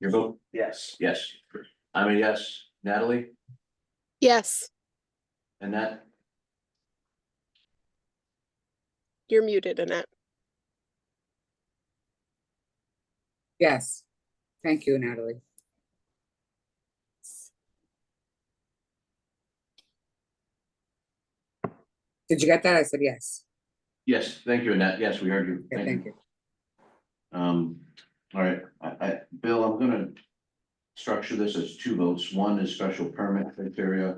Your vote? Yes. Yes. I'm a yes. Natalie Yes, and Nat? you're muted, Annette. Yes. Thank you, Natalie. Did you get that? I said yes. Yes, thank you, Annette. Yes, we heard you. Okay, thank you. Um, all right, I, I, Bill, I'm gonna structure this as two votes. One is special permit criteria.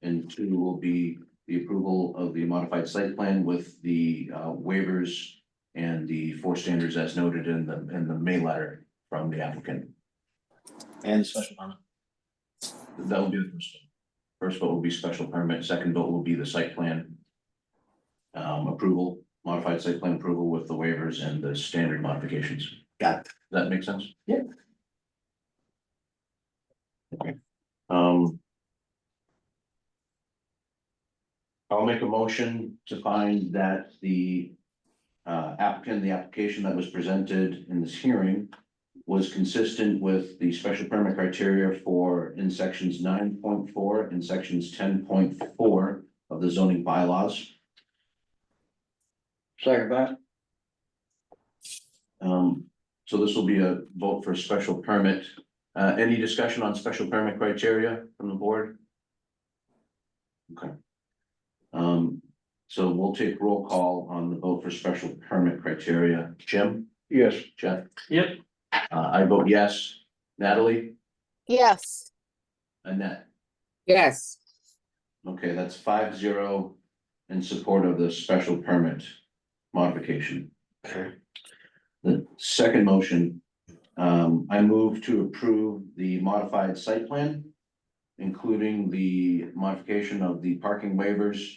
And two will be the approval of the modified site plan with the uh, waivers and the four standards as noted in the, in the May letter from the applicant. And special permit. That will be the first. vote. First vote will be special permit, second vote will be the site plan. um, approval, modified site plan approval with the waivers and the standard modifications. Got Does that make sense? Yeah. Okay, um. I'll make a motion to find that the uh applicant, the application that was presented in this hearing. Was consistent with the special permit criteria for in sections nine point four and sections ten point four of the zoning bylaws. Second that. Um, so this will be a vote for special permit. Uh, any discussion on special permit criteria from the board? Okay. Um, so we'll take roll call on the vote for special permit criteria. Jim? Yes. Jeff? Yep. Uh, I vote yes. Natalie? Yes, Annette? Yes, Okay, that's five zero in support of the special permit modification. Okay. The second motion, um, I move to approve the modified site plan. Including the modification of the parking waivers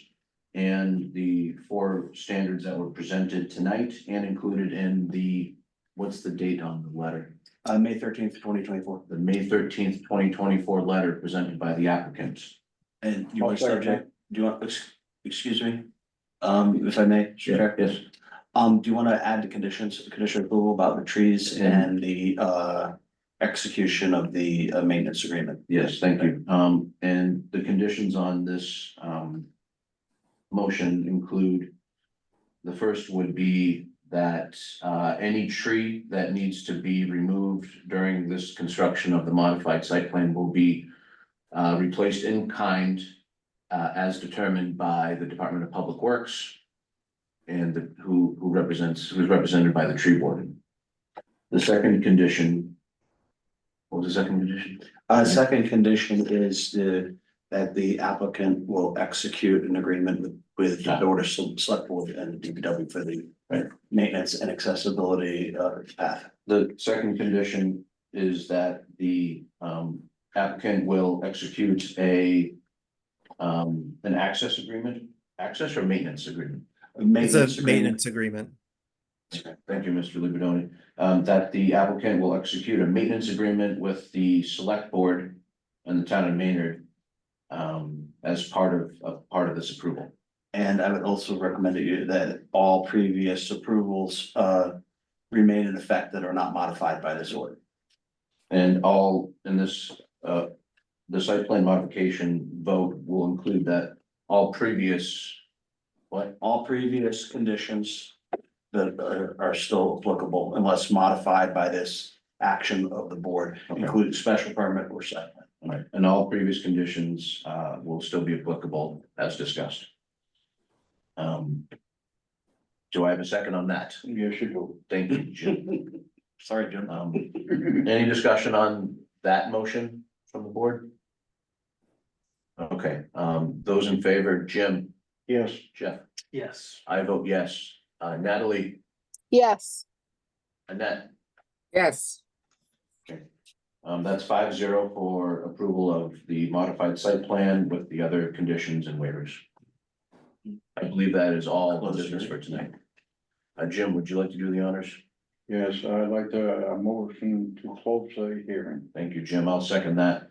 and the four standards that were presented tonight and included in the. What's the date on the letter? Uh, May thirteenth, twenty twenty-four, The May thirteenth, twenty twenty-four letter presented by the applicant. and you want I'll to second subject, do you want, ex- excuse me? Um, if I may, Mr. Chair? Yes, Um, do you want to add the conditions, condition approval about the trees and the, uh, execution of the, uh, maintenance agreement? Yes, thank you. Um, and the conditions on this, um. Motion include. The first would be that, uh, any tree that needs to be removed during this construction of the modified site plan will be. Uh, replaced in kind, uh, as determined by the Department of Public Works. And the- who, who represents, who's represented by the tree warden. The second condition. What was the second condition? Uh, second condition is the, that the applicant will execute an agreement with, with the Board of Select Board and DPW for the Right. maintenance and accessibility, uh, path. The second condition is that the um applicant will execute a. Um, an access agreement, access or maintenance agreement. It's Maintenance a agreement. maintenance agreement. Thank you, Mr. Libidoni. Um, that the applicant will execute a maintenance agreement with the select board and the town of Maynard. Um, as part of, of part of this approval. And I would also recommend that you, that all previous approvals, uh, remain in effect that are not modified by this order. And all in this, uh, the site plan modification vote will include that all previous. What? All previous conditions that are, are still applicable unless modified by this action of the board, Okay. including special permit or site plan. All right, and all previous conditions uh will still be applicable as discussed. Um. Do I have a second on that? You should go. Thank you, Jim. Sorry, Jim. Um, any discussion on that motion from the board? Okay, um, those in favor, Jim, Yes. Jeff, Yes. I vote yes. Uh, Natalie, yes, Annette, yes, um, that's five zero for approval of the modified site plan with the other conditions and waivers. I believe that is all the business for tonight. Uh, Jim, would you like to do the honors? Yes, I'd like to, a motion to close the hearing. Thank you, Jim. I'll second that.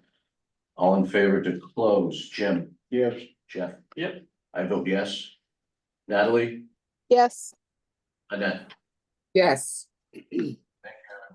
All in favor to close, Jim, Yes, Jeff? Yep. I vote yes. Natalie, yes, Annette, yes,